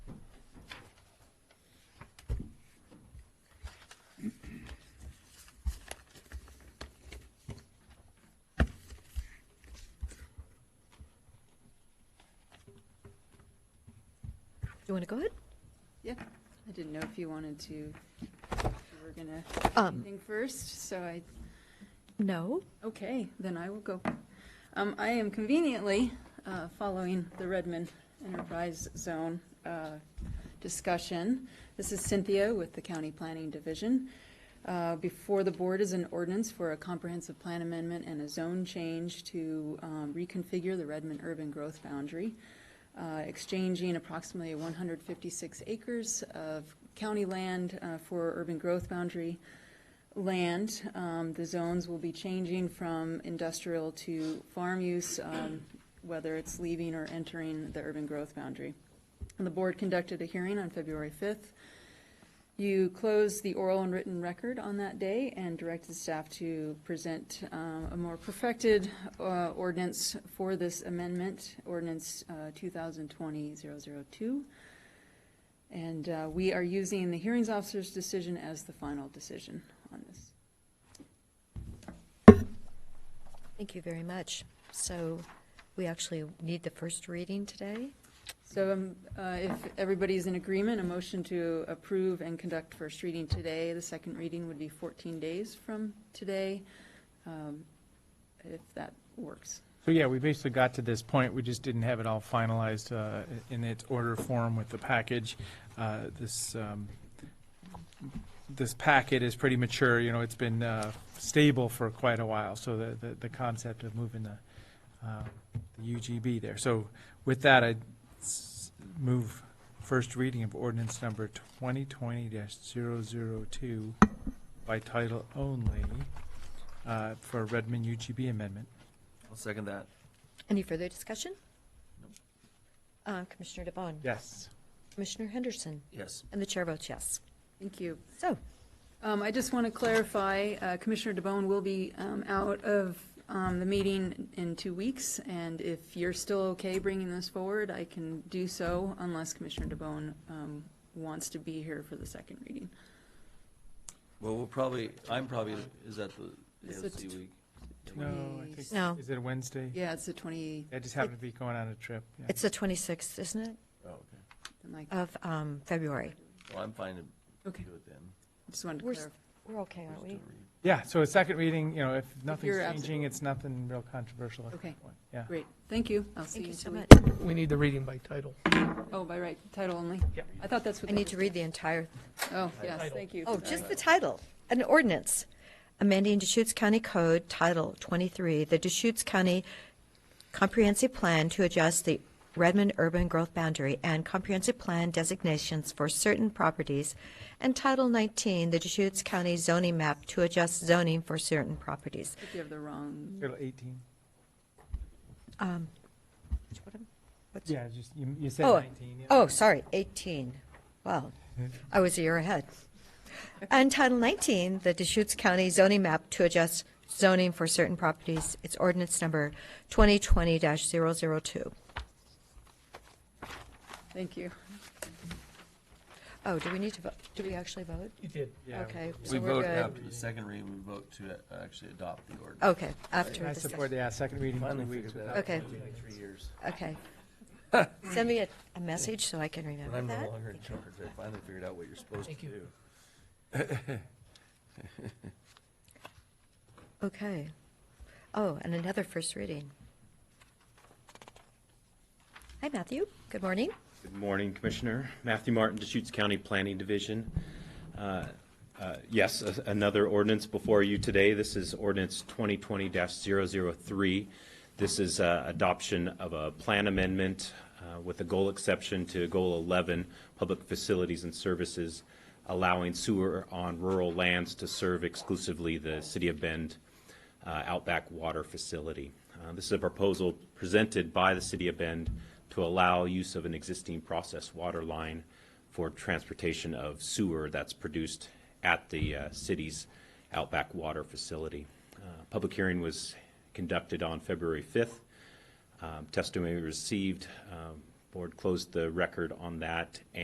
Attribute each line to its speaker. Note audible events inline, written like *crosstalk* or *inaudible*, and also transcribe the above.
Speaker 1: You want to go ahead?
Speaker 2: Yeah, I didn't know if you wanted to, if you were gonna,
Speaker 1: Um,
Speaker 2: think first, so I,
Speaker 1: no.
Speaker 2: okay, then I will go. Um, I am conveniently, uh, following the Redmond Enterprise Zone, uh, discussion. This is Cynthia with the County Planning Division. Uh, Before the board is an ordinance for a comprehensive plan amendment and a zone change to um, reconfigure the Redmond urban growth boundary, uh, exchanging approximately 156 acres of county land uh, for urban growth boundary land. Um, The zones will be changing from industrial to farm use, um, whether it's leaving or entering the urban growth boundary. And the board conducted a hearing on February 5th. You closed the oral and written record on that day and directed staff to present um, a more perfected uh, ordinance for this amendment, ordinance uh, 2020-002. And uh, we are using the hearings officer's decision as the final decision on this.
Speaker 1: Thank you very much. So we actually need the first reading today.
Speaker 2: So um, uh, if everybody is in agreement, a motion to approve and conduct first reading today. The second reading would be 14 days from today, um, if that works.
Speaker 3: So yeah, we basically got to this point, we just didn't have it all finalized uh, in its order form with the package. Uh, This, um, this packet is pretty mature, you know, it's been uh, stable for quite a while, so the, the- the concept of moving the uh, the UGB there. So with that, I move first reading of ordinance number 2020-002 by title only uh, for Redmond UGB amendment.
Speaker 4: I'll second that.
Speaker 1: Any further discussion? Uh, Commissioner DeBon?
Speaker 3: Yes.
Speaker 1: Commissioner Henderson?
Speaker 4: Yes.
Speaker 1: And the chair votes yes.
Speaker 2: Thank you.
Speaker 1: So,
Speaker 2: Um, I just want to clarify, uh, Commissioner DeBonne will be um, out of um, the meeting in two weeks, and if you're still okay bringing this forward, I can do so unless Commissioner DeBonne um, wants to be here for the second reading.
Speaker 4: Well, we'll probably, I'm probably, is that the
Speaker 2: It's the
Speaker 4: AOC
Speaker 2: t-
Speaker 4: week?
Speaker 3: No, I think,
Speaker 1: No.
Speaker 3: is it a Wednesday?
Speaker 2: Yeah, it's the 20,
Speaker 3: I just happened to be going on a trip. yeah.
Speaker 1: it's the 26th, isn't it,
Speaker 4: Oh, okay.
Speaker 2: like,
Speaker 1: of um, February?
Speaker 4: Well, I'm fine to
Speaker 2: okay,
Speaker 4: do it then.
Speaker 2: just wanted to
Speaker 1: We're,
Speaker 2: clarify.
Speaker 1: we're okay, aren't we?
Speaker 3: Yeah, so a second reading, you know, if nothing's
Speaker 2: you're absent-
Speaker 3: changing, it's nothing real controversial. at that
Speaker 2: Okay.
Speaker 3: point, Yeah.
Speaker 2: Great, thank you. I'll see
Speaker 1: Thank
Speaker 2: you
Speaker 1: you
Speaker 2: in
Speaker 1: so
Speaker 2: two
Speaker 1: much.
Speaker 2: weeks.
Speaker 5: We need the reading by title.
Speaker 2: Oh, by right, title only?
Speaker 3: Yep.
Speaker 2: I thought that's what.
Speaker 1: I
Speaker 2: that
Speaker 1: need to
Speaker 2: was.
Speaker 1: read the entire,
Speaker 2: Oh, yes,
Speaker 5: Title.
Speaker 2: thank you.
Speaker 1: oh,
Speaker 2: Sorry.
Speaker 1: just the title. An ordinance amending Deschutes County Code Title 23, the Deschutes County comprehensive plan to adjust the Redmond urban growth boundary and comprehensive plan designations for certain properties, and Title 19, the Deschutes County zoning map to adjust zoning for certain properties.
Speaker 2: I think You have the wrong,
Speaker 3: Title 18.
Speaker 1: Um, which one? What's-
Speaker 3: Yeah, just, you, you said
Speaker 1: Oh,
Speaker 3: 19. yeah.
Speaker 1: Oh, sorry, 18. Wow, I was a year ahead. And Title 19, the Deschutes County zoning map to adjust zoning for certain properties, it's ordinance number 2020-002.
Speaker 2: thank you.
Speaker 1: Oh, do we need to vote? Do we actually vote?
Speaker 5: You did.
Speaker 3: Yeah.
Speaker 1: Okay,
Speaker 4: We
Speaker 1: so we're
Speaker 4: vote
Speaker 1: good.
Speaker 4: after the second reading, we vote to uh, actually adopt the ordinance.
Speaker 1: Okay, after
Speaker 3: I
Speaker 1: this,
Speaker 3: support, yeah, second reading, two weeks. without-
Speaker 1: Okay.
Speaker 4: It'll be like Three years.
Speaker 1: okay. *laughs* Send me a, a message so I can
Speaker 4: When
Speaker 1: remember
Speaker 4: I'm no
Speaker 1: that.
Speaker 4: longer in charge, I finally figured out what you're supposed to
Speaker 5: Thank you.
Speaker 4: do.
Speaker 1: Okay. Oh, and another first reading. Hi, Matthew, good morning.
Speaker 6: Good morning, Commissioner. Matthew Martin, Deschutes County Planning Division. Uh, uh, Yes, a- another ordinance before you today. This is ordinance 2020-003. This is uh, adoption of a plan amendment uh, with a goal exception to Goal 11, Public Facilities and Services, allowing sewer on rural lands to serve exclusively the City of Bend uh, Outback Water Facility. Uh, This is a proposal presented by the City of Bend to allow use of an existing process water line for transportation of sewer that's produced at the uh, city's Outback Water Facility. Uh, Public hearing was conducted on February 5th. Um, Testimony received. um, Board closed the record on that